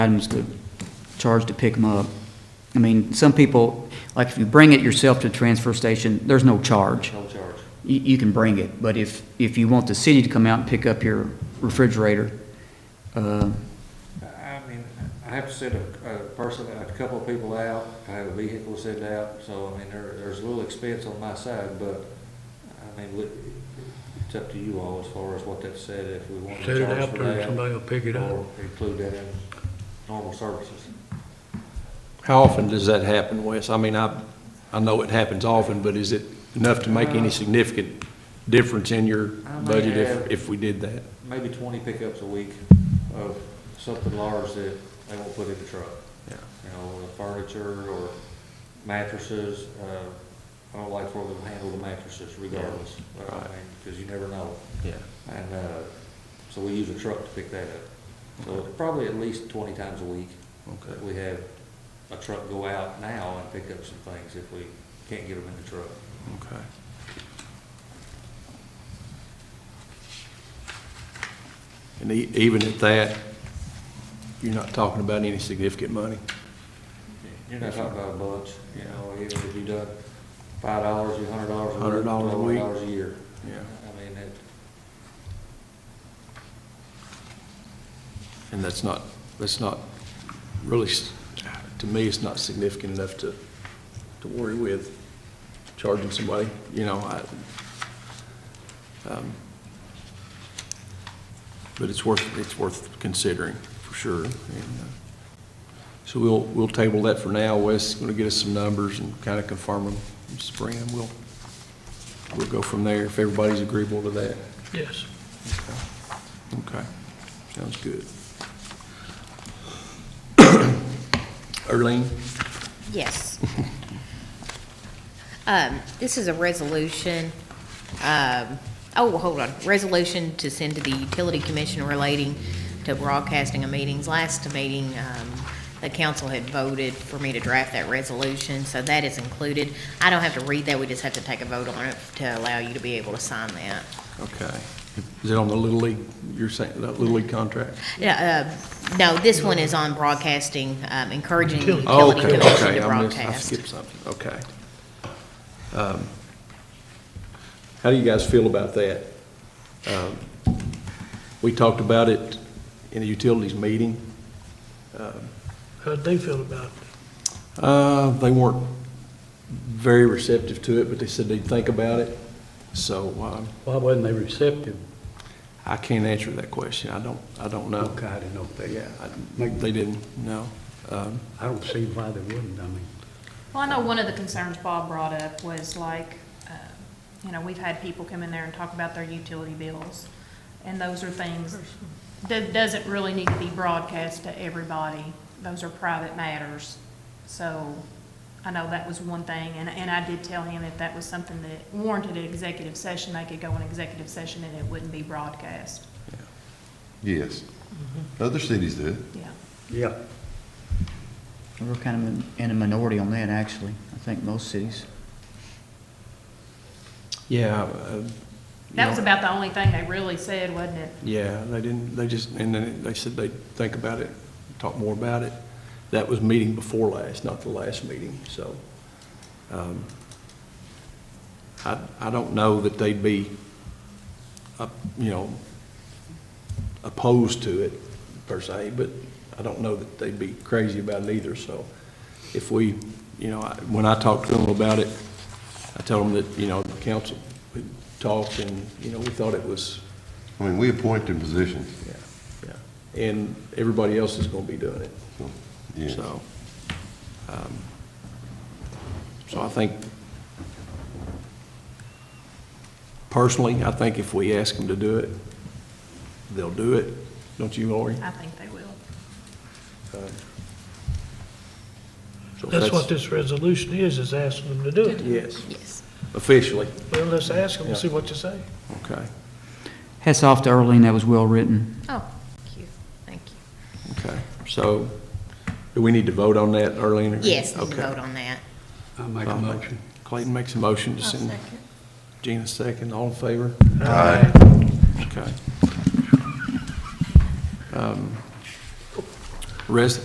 items to charge to pick them up. I mean, some people, like if you bring it yourself to the transfer station, there's no charge. No charge. You, you can bring it, but if, if you want the city to come out and pick up your refrigerator, uh, I mean, I have to send a, a person, a couple of people out, I have a vehicle to send out, so I mean, there, there's a little expense on my side, but I mean, we- it's up to you all as far as what that said, if we want Set to it charge out for there, that. somebody will pick it up. Or include that in normal services. How often does that happen, Wes? I mean, I, I know it happens often, but is it enough to make any significant difference in your I might budget have- if, if we did that? Maybe twenty pickups a week of something large that they won't put in the truck. Yeah. You know, furniture or mattresses, uh, I don't like for them to handle the mattresses regardless. I mean, Right. cause you never know. Yeah. And, uh, so we use a truck to pick that up. So it's probably at least twenty times a week Okay. that we have a truck go out now and pick up some things if we can't get them in the truck. Okay. And e- even at that, you're not talking about any significant money? You're not talking about a bunch, you know, even if you done five dollars, a hundred dollars a week. $100 a week. $12 a year. Yeah. I mean, it, And that's not, that's not really, s- to me, it's not significant enough to, to worry with charging somebody, you know, I, um, but it's worth, it's worth considering, for sure. And, uh, So we'll, we'll table that for now. Wes is gonna get us some numbers and kind of confirm them, in spring, and we'll, we'll go from there if everybody's agreeable to that. Yes. Okay, sounds good. Erling, Yes. Um, This is a resolution, um, oh, well, hold on, resolution to send to the utility commission relating to broadcasting of meetings. Last meeting, um, the council had voted for me to draft that resolution, so that is included. I don't have to read that, we just have to take a vote on it to allow you to be able to sign that. okay. Is it on the Little League, you're saying, that Little League contract? Yeah, uh, No, this one is on broadcasting, um, encouraging the Utility. Oh, utility okay, commission okay, I to missed- I broadcast. skipped something, okay. Um, How do you guys feel about that? Um, We talked about it in the utilities meeting. How'd they feel about it? Uh, they weren't very receptive to it, but they said they'd think about it, so, um, Why wasn't they receptive? I can't answer that question. I don't, I don't know. Okay, I didn't know if they, Yeah, I- they didn't, no. Um, I don't see why they wouldn't, I mean. Well, I know one of the concerns Bob brought up was like, uh, you know, we've had people come in there and talk about their utility bills, and those are things that doesn't really need to be broadcast to everybody. Those are private matters. So I know that was one thing, and, and I did tell him that that was something that warranted an executive session. They could go in executive session and it wouldn't be broadcast, Yes. Other cities do it. yeah. Yeah. we're kind of in a minority on that, actually. I think most cities. Yeah. uh, you That was know, about the only thing they really said, wasn't it? Yeah, they didn't, they just, and then they said they'd think about it, talk more about it. That was meeting before last, not the last meeting, so. um, I, I don't know that they'd be, up- you know, opposed to it per se, but I don't know that they'd be crazy about it either, so. If we, you know, I- when I talked to them about it, I told them that, you know, the council, we talked and, you know, we thought it was, I mean, we appoint in positions, yeah, yeah. And everybody else is gonna be doing it, so, yes. so. um, So I think, personally, I think if we ask them to do it, they'll do it. Don't you, Lori? I think they will. So That's what this resolution is, is asking them to do it. Yes, Yes. officially, Well, let's ask them and see Yeah. what you say. okay, Hats off to Earlene, that was well-written. Oh, cute, thank you. okay. So, do we need to vote on that, Arlene? or- Yes, there's a Okay. vote on that. I make a motion. Clayton makes a motion to send. Gina second, all in favor? Aye. Okay. Um, Res,